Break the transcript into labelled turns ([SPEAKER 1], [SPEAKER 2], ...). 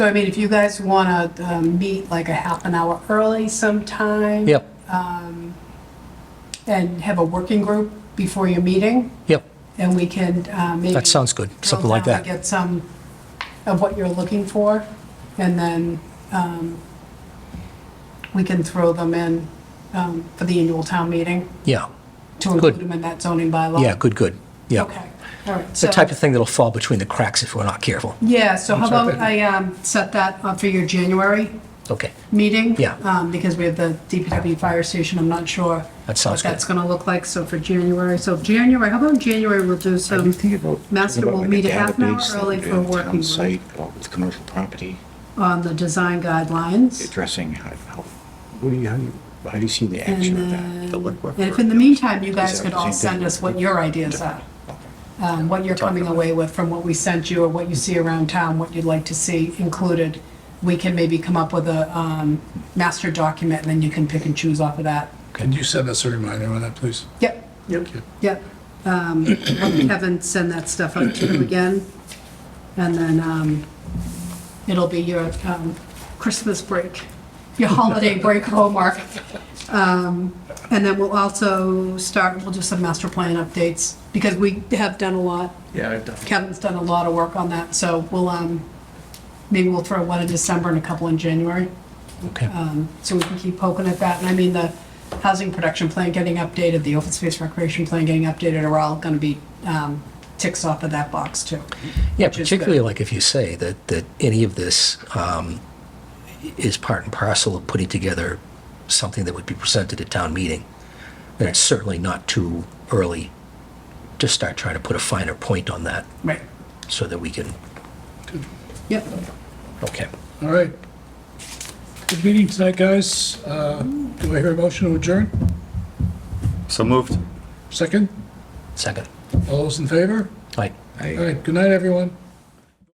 [SPEAKER 1] So I mean, if you guys want to meet like a half an hour early sometime.
[SPEAKER 2] Yep,
[SPEAKER 1] And have a working group before your meeting,
[SPEAKER 2] yep,
[SPEAKER 1] and we can uh, maybe.
[SPEAKER 2] That sounds good,
[SPEAKER 1] drill
[SPEAKER 2] something like
[SPEAKER 1] down
[SPEAKER 2] that.
[SPEAKER 1] and Get some of what you're looking for, and then um, we can throw them in um, for the annual town meeting
[SPEAKER 2] yeah,
[SPEAKER 1] to
[SPEAKER 2] Good.
[SPEAKER 1] include them in that zoning bylaw.
[SPEAKER 2] yeah, good, good, yeah.
[SPEAKER 1] Okay, all right.
[SPEAKER 2] It's the type of thing that'll fall between the cracks if we're not careful.
[SPEAKER 1] Yeah, so how about I um, set that up for your January
[SPEAKER 2] Okay,
[SPEAKER 1] meeting.
[SPEAKER 2] Yeah.
[SPEAKER 1] um, Because we have the DPW fire station, I'm not sure.
[SPEAKER 2] That
[SPEAKER 1] What
[SPEAKER 2] sounds good.
[SPEAKER 1] that's going to look like, so for January, so January, how about in January, we'll do
[SPEAKER 3] What do you
[SPEAKER 1] some,
[SPEAKER 3] think about?
[SPEAKER 1] Um, Master
[SPEAKER 3] about
[SPEAKER 1] will
[SPEAKER 3] like
[SPEAKER 1] meet
[SPEAKER 3] a
[SPEAKER 1] a half an hour
[SPEAKER 3] database
[SPEAKER 1] early
[SPEAKER 3] that
[SPEAKER 1] for
[SPEAKER 3] would be on
[SPEAKER 1] working
[SPEAKER 3] Town site, uh, with commercial property,
[SPEAKER 1] on the design guidelines.
[SPEAKER 3] addressing how, how, what do you, how do you, how do you see the
[SPEAKER 1] And
[SPEAKER 3] action of that?
[SPEAKER 1] then,
[SPEAKER 3] The legwork
[SPEAKER 1] and if
[SPEAKER 3] for-
[SPEAKER 1] in the meantime, you guys
[SPEAKER 3] that
[SPEAKER 1] could
[SPEAKER 3] the
[SPEAKER 1] all
[SPEAKER 3] same thing?
[SPEAKER 1] send us what your ideas are, um, what you're coming away with from what we sent you or what you see around town, what you'd like to see included, we can maybe come up with a um, master document, and then you can pick and choose off of that.
[SPEAKER 4] Can you send us a reminder on that, please?
[SPEAKER 1] Yep. Yep. Yep. Um, let Kevin send that stuff up to you again, and then um, it'll be your um, Christmas break, your holiday break homework. Um, And then we'll also start, we'll do some master plan updates, because we have done a lot.
[SPEAKER 3] Yeah, I've done.
[SPEAKER 1] Kevin's done a lot of work on that, so we'll, um, maybe we'll throw one in December and a couple in January
[SPEAKER 2] okay,
[SPEAKER 1] um, so we can keep poking at that. And I mean, the housing production plan getting updated, the open space recreation plan getting updated are all going to be um, ticks off of that box too.
[SPEAKER 2] yeah,
[SPEAKER 1] which is good.
[SPEAKER 2] particularly like if you say that, that any of this um, is part and parcel of putting together something that would be presented at town meeting, then it's certainly not too early to start trying to put a finer point on that
[SPEAKER 1] Right.
[SPEAKER 2] so that we can,
[SPEAKER 1] Yep.
[SPEAKER 2] okay.
[SPEAKER 4] All right. Good meeting tonight, guys. Uh, Do I hear a motion to adjourn?
[SPEAKER 5] So moved.
[SPEAKER 4] Second?
[SPEAKER 2] Second.
[SPEAKER 4] All those in favor?
[SPEAKER 2] All right.
[SPEAKER 4] All right, good night, everyone.